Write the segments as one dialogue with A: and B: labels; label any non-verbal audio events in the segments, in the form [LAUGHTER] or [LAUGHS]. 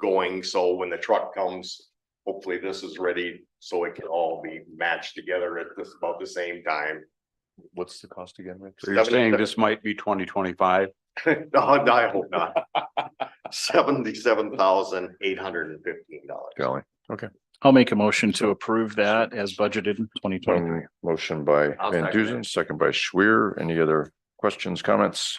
A: going, so when the truck comes, hopefully this is ready, so it can all be matched together at this, about the same time. [LAUGHS]
B: What's the cost again, Rick?
C: So you're saying
A: Seven-
C: this might be twenty twenty-five?
A: No, I hope not. Seventy-seven thousand eight hundred and fifteen dollars.
B: Golly,
D: I'll make a motion to approve that as budgeted in twenty twenty.
B: Um, motion by
C: I'll
B: Van
C: second
B: Duzen, second by Schwer. Any other questions, comments?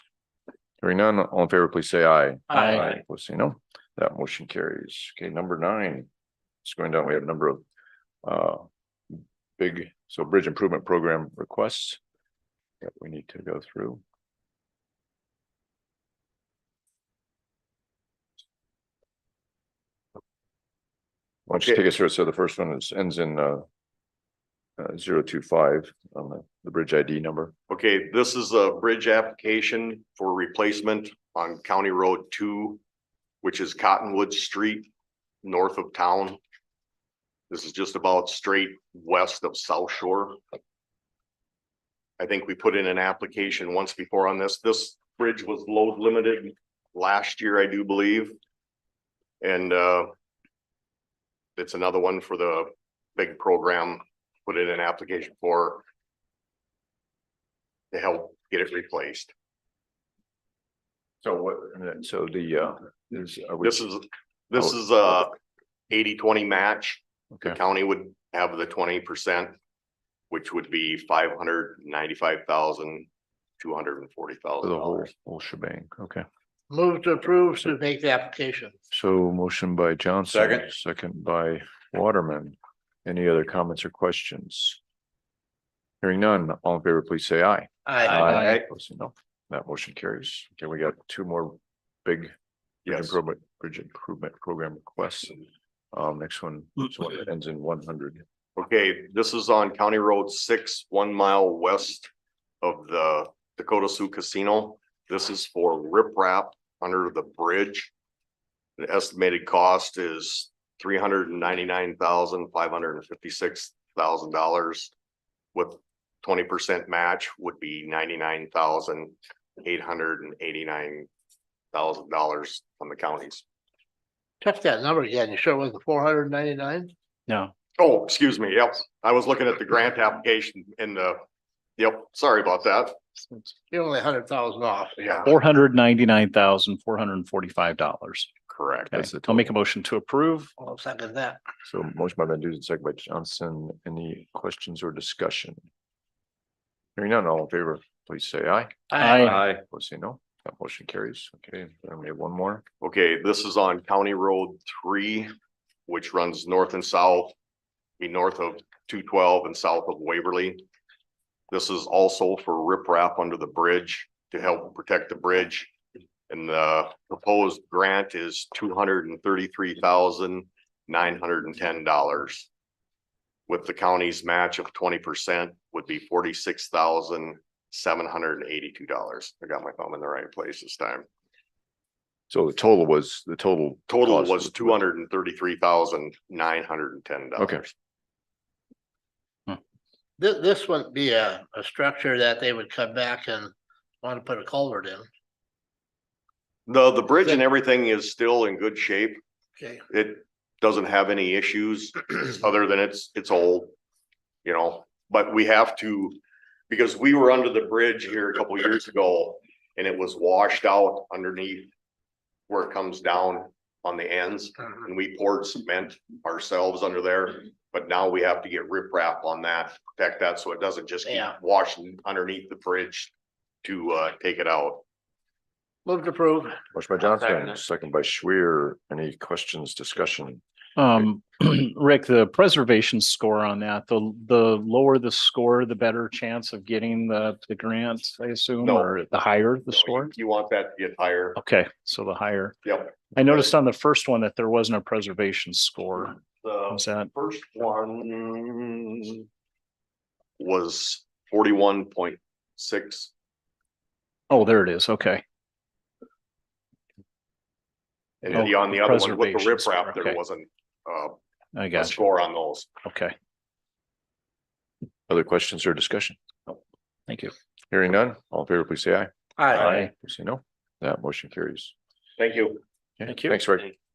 B: Hearing none, all in favor, please say aye.
D: Aye.
B: Opposed, say no. That motion carries. Okay, number nine. It's going down. We have a number of uh big, so bridge improvement program requests that we need to go through. Why don't you
A: Okay.
B: take us through? it? So the first one is ends in uh uh zero two five on the the bridge ID number.
A: Okay, this is a bridge application for replacement on County Road two, which is Cottonwood Street, north of town. This is just about straight west of South Shore. I think we put in an application once before on this. This bridge was load limited last year, I do believe. And uh it's another one for the big program, put in an application for to help get it replaced.
B: So what, so the uh is. uh, are we- Oh,
A: This is, this is a eighty, twenty match. The
B: Okay.
A: county would have the twenty percent, which would be five hundred ninety-five thousand, two hundred and forty
B: The
A: thousand
B: whole
A: dollars.
B: whole shebang. Okay.
E: Move to approve to make the application.
B: So motion by Johnson.
C: Second.
B: Second by Waterman. Any other comments or questions? Hearing none, all in favor, please say aye.
E: I
B: Opposed, say No, that motion carries. Okay, we got two more big bridge
A: Yes,
B: improvement, bridge improvement program requests. Um, next one, this one that ends in one hundred.
A: okay, this is on County Road six, one mile west of the Dakota Sioux Casino. This is for riprap under the bridge. The estimated cost is three hundred and ninety-nine thousand, five hundred and fifty-six thousand dollars. With twenty percent match would be ninety-nine thousand, eight hundred and eighty-nine thousand dollars on the counties.
E: Check that number again. You sure it wasn't four hundred ninety-nine?
D: No,
A: Oh, excuse me, yep, I was looking at the grant application in the, yep, sorry about that,
E: You're only a hundred thousand off.
A: yeah,
D: four hundred ninety-nine thousand, four hundred and forty-five dollars.
A: correct.
D: Okay, I'll make a motion to approve.
E: I'll second that.
B: So motion by Van Duzen, second by Johnson. Any questions or discussion? Hearing none, all in favor, please say aye.
D: Aye.
B: Opposed, say no, that motion carries. Okay, then we have one more.
A: Okay, this is on County Road three, which runs north and south. Be north of two twelve and south of Waverly. This is also for riprap under the bridge to help protect the bridge. And the proposed grant is two hundred and thirty-three thousand nine hundred and ten dollars. With the county's match of twenty percent would be forty-six thousand seven hundred and eighty-two dollars. I got my thumb in the right place this time.
B: So the total was, the total.
A: Total
B: cost
A: was two hundred and thirty-three thousand nine hundred and ten
B: Okay.
A: dollars.
E: This, this wouldn't be a, a structure that they would come back and want to put a culvert in.
A: The, the bridge and everything is still in good shape.
E: Okay.
A: It doesn't have any
B: [CLEARS THROAT]
A: issues other than it's, it's old. You know, but we have to, because we were under the bridge here a couple years ago and it was washed out underneath where it comes down on the ends. and we poured cement ourselves under there. But now we have to get riprap on that, to protect that, so it doesn't just keep
E: Yeah.
A: washing underneath the bridge to uh take it out.
E: Move to approve.
B: Motion by Johnson, second by Schwer. Any questions, discussion?
D: Um, [CLEARS THROAT] Rick, the preservation score on that, the, the lower the score, the better chance of getting the, the grant, I assume,
A: No.
D: or the higher the score?
A: You want that to get higher,
D: Okay, so the higher.
A: yep.
D: I noticed on the first one that there wasn't a preservation score.
A: The
D: Was that?
A: first one was forty-one point six.
D: Oh, there it is. Okay.
A: And
D: Oh,
A: then on the other one with the
D: preservation score,
A: riprap, there
D: okay.
A: wasn't uh
D: I
A: a
D: got you.
A: score on those.
D: Okay.
B: Other questions or discussion?
D: Thank you.
B: Hearing none, all in favor, please say aye.
E: Aye.
B: Please Say no, that motion carries.
A: Thank you.
B: Okay,
D: Thank you.
B: Thanks, Rick.